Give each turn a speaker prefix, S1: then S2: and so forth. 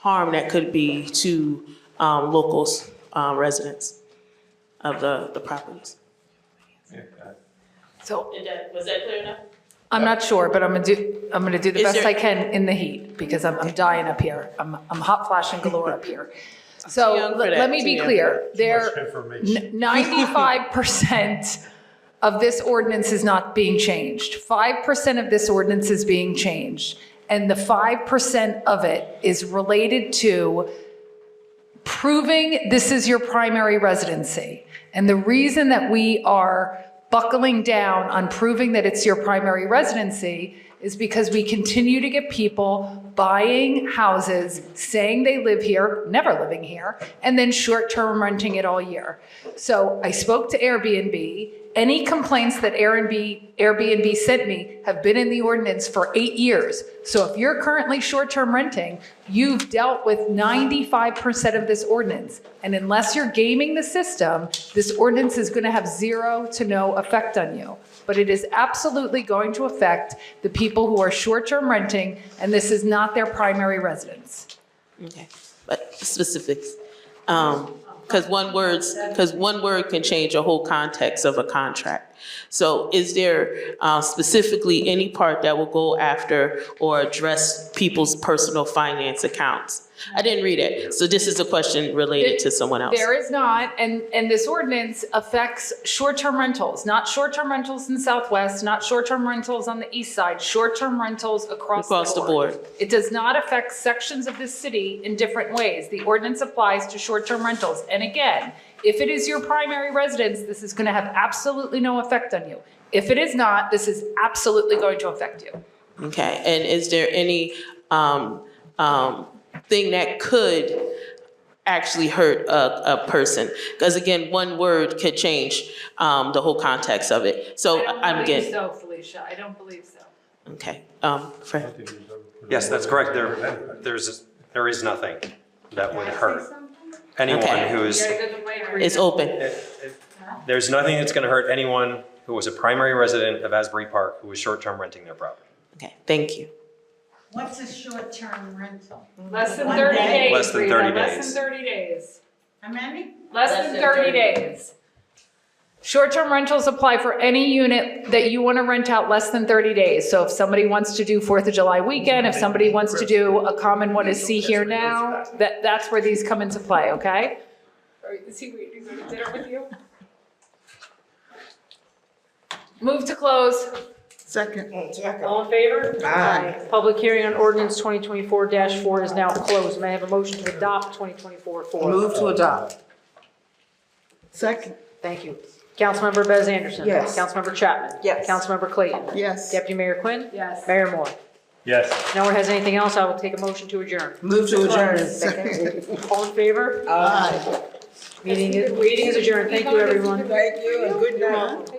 S1: harm that could be to um, locals, uh, residents of the, the properties.
S2: So
S1: Was that clear enough?
S2: I'm not sure, but I'm gonna do, I'm gonna do the
S1: Is
S2: best
S1: there-
S2: I can in the heat because I'm, I'm dying up here. I'm, I'm hot flashing galore up here.
S1: Too
S2: So
S1: young for
S2: let let
S1: that,
S2: me
S1: too
S2: be
S1: young.
S2: clear,
S3: Much
S2: there,
S3: information.
S2: ninety-five percent of this ordinance is not being changed. Five percent of this ordinance is being changed. And the five percent of it is related to proving this is your primary residency. And the reason that we are buckling down on proving that it's your primary residency is because we continue to get people buying houses, saying they live here, never living here, and then short-term renting it all year. So I spoke to Airbnb. Any complaints that Airbnb, Airbnb sent me have been in the ordinance for eight years. So if you're currently short-term renting, you've dealt with 95% of this ordinance. And unless you're gaming the system, this ordinance is going to have zero to no effect on you. But it is absolutely going to affect the people who are short-term renting, and this is not their primary residence.
S1: Okay, but specifics. Because one words, because one word can change a whole context of a contract. So is there uh, specifically any part that will go after or address people's personal finance accounts? I didn't read it, so this is a question related to someone else.
S2: There is not, and, and this ordinance affects short-term rentals, not short-term rentals in Southwest, not short-term rentals on the east side, short-term rentals across the board.
S1: Across the board.
S2: It does not affect sections of the city in different ways. The ordinance applies to short-term rentals. And again, if it is your primary residence, this is going to have absolutely no effect on you. If it is not, this is absolutely going to affect you.
S1: Okay, and is there any um, um, thing that could actually hurt a, a person? Because again, one word could change um, the whole context of it. So Oh, I'm getting,
S2: so, Felicia. I don't believe so.
S1: okay. um, Fran.
S4: Yes, that's correct. There, there's, there is nothing that would hurt anyone
S1: Okay.
S4: who is,
S1: It's open.
S4: it- it- there's nothing that's going to hurt anyone who was a primary resident of Asbury Park who was short-term renting their property.
S1: Okay, thank you.
S5: What's a short-term rental?
S2: Less than
S5: One
S2: 30
S5: day?
S2: days.
S4: Less than
S2: Rita.
S4: 30
S2: Less
S4: days.
S2: than 30 days.
S5: How many?
S2: Less than 30 days. Short-term rentals apply for any unit that you want to rent out less than 30 days. So if somebody wants to do 4th of July weekend, if somebody wants to do a common one is see here now, that, that's where these come into play, okay? Is he waiting to dinner with you? Move to close.
S5: Second.
S6: All in favor? Aye. Public hearing on ordinance 2024-4 is now closed. May I have a motion to adopt 2024-4?
S7: Move to adopt.
S5: Second.
S6: Thank you. Councilmember Bez Anderson.
S7: Yes.
S6: Councilmember Chapman.
S7: Yes.
S6: Councilmember Clayton.
S5: Yes.
S6: Deputy Mayor Quinn.
S2: Yes.
S6: Mayor Moore.
S3: Yes.
S6: If no one has anything else, I will take a motion to adjourn.
S7: Move to adjourn.
S5: Second.
S6: All in favor?
S5: Aye.
S6: Meeting is meeting is adjourned. Thank you, everyone.
S7: Thank you and good night.